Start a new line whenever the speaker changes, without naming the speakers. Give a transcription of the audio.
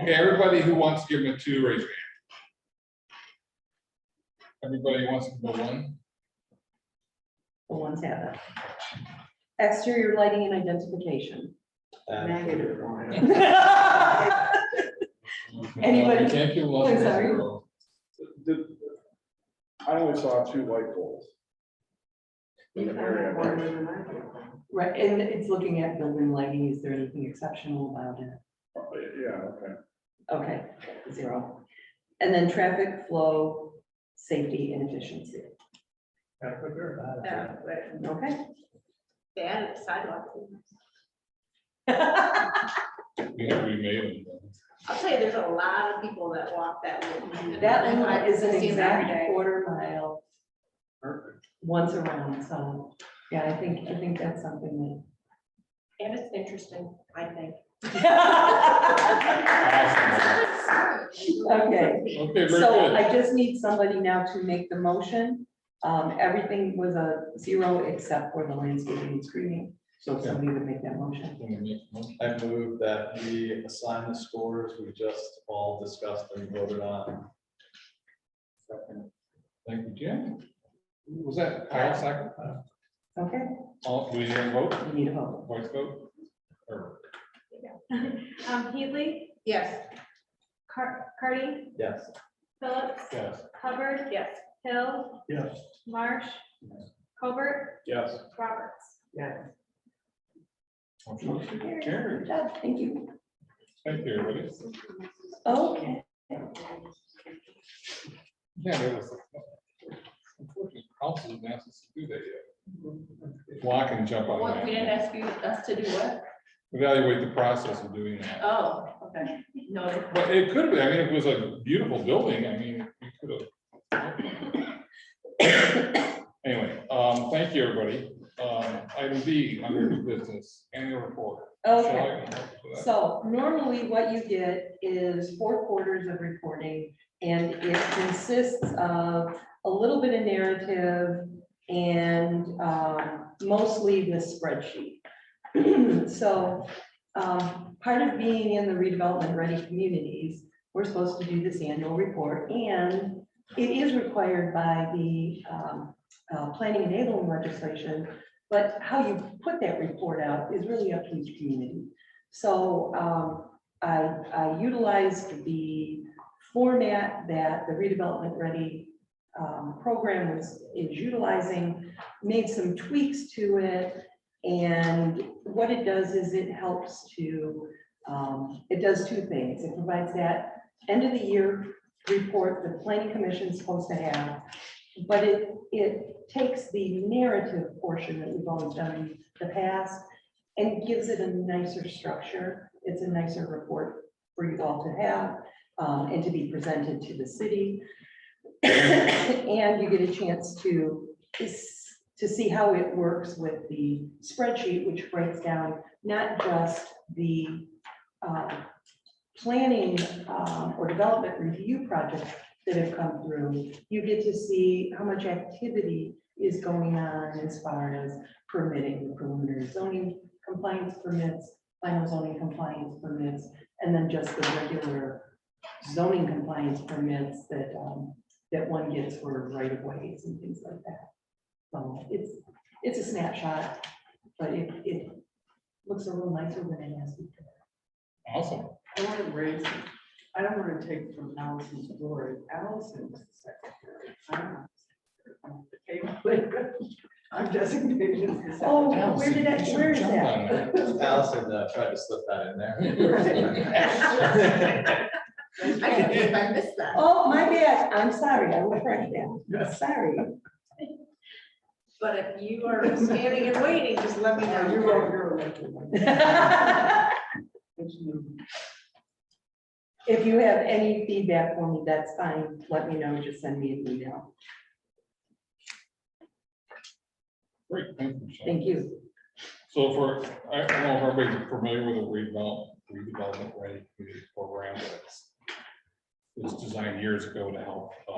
Okay, everybody who wants to give them a two, raise your hand. Everybody who wants to give them a one?
The ones have it. Exterior lighting and identification, negative one. Anybody-
You Can't give one.
I'm sorry.
The- I only saw two light poles. In the area, right?
Right, and it's looking at building lighting, is there anything exceptional about it?
Yeah, okay.
Okay, zero. And then traffic flow, safety and efficiency.
Yeah, but
Okay.
They added sidewalk.
We have remade them.
I'll tell you, there's a lot of people that walk that way.
That one is an
See them
exact
every day.
quarter mile. Once around, so, yeah, I think, I think that's something
And it's interesting, I think.
that. Okay.
Okay, very
So
good.
I just need somebody now to make the motion. Um, everything was a zero except for the landscaping and screening. So if somebody would make that motion.
I move that we assign the scores we just all discussed and voted on.
Thank you, Jim. Was that Kyle second?
Okay,
All, we didn't vote,
we need a vote.
voice vote? Or-
Um, Heatley,
Yes,
Car- Cardy,
Yes.
Phillips,
Yes.
Hubbard. Yes. Hill,
Yes.
Marsh, Colbert,
Yes.
Roberts.
Motion Carried.
Good job, Thank you.
Thank you, everybody.
Okay,
Yeah, there was. Unfortunately, council didn't ask us to do that yet. Block and jump on
What- we didn't
that.
ask you, us to do what?
Evaluate the process of doing that.
Oh, okay, no,
But it could be, I mean, it was a beautiful building, I mean, we could have. Anyway, um, thank you, everybody. Um, item B, under new business, annual report. Shall
okay.
I?
So normally what you get is four quarters of reporting and it consists of a little bit of narrative and um, mostly the spreadsheet. So um, part of being in the redevelopment ready communities, we're supposed to do this annual report and it is required by the um, uh, planning enabling legislation. But how you put that report out is really up to each community. So um, I I utilized the format that the redevelopment ready um, program was, is utilizing, made some tweaks to it. And what it does is it helps to, um, it does two things. It provides that end of the year report the planning commission is supposed to have. But it, it takes the narrative portion that we've always done in the past and gives it a nicer structure. It's a nicer report for you all to have um, and to be presented to the city. And you get a chance to, to see how it works with the spreadsheet, which breaks down not just the um, planning um, or development review projects that have come through. You get to see how much activity is going on as far as permitting, the preliminary zoning compliance permits, final zoning compliance permits, and then just the regular zoning compliance permits that, um, that one gets for right of ways and things like that. So it's, it's a snapshot, but it, it looks a little nicer than it has been.
Awesome.
I want to raise, I don't want to take from Allison's glory. Allison's the secretary. I'm not the secretary. I'm the table. I'm designated as the secretary.
Oh, where did that,
Allison,
where is
jump
that?
on that?
Allison uh, tried to slip that in
I
there.
can't believe I missed that.
Oh, my bad, I'm sorry, I will correct that, sorry.
But if you are standing and waiting, just let me
Now,
know.
You're, you're elected. It's new.
If you have any feedback for me, that's fine, let me know, just send me an email,
Great, thank you. Michelle.
thank you.
So for, I I don't know if everybody's familiar with the redevelop- redevelopment ready community program, but it's- it's designed years ago to help uh,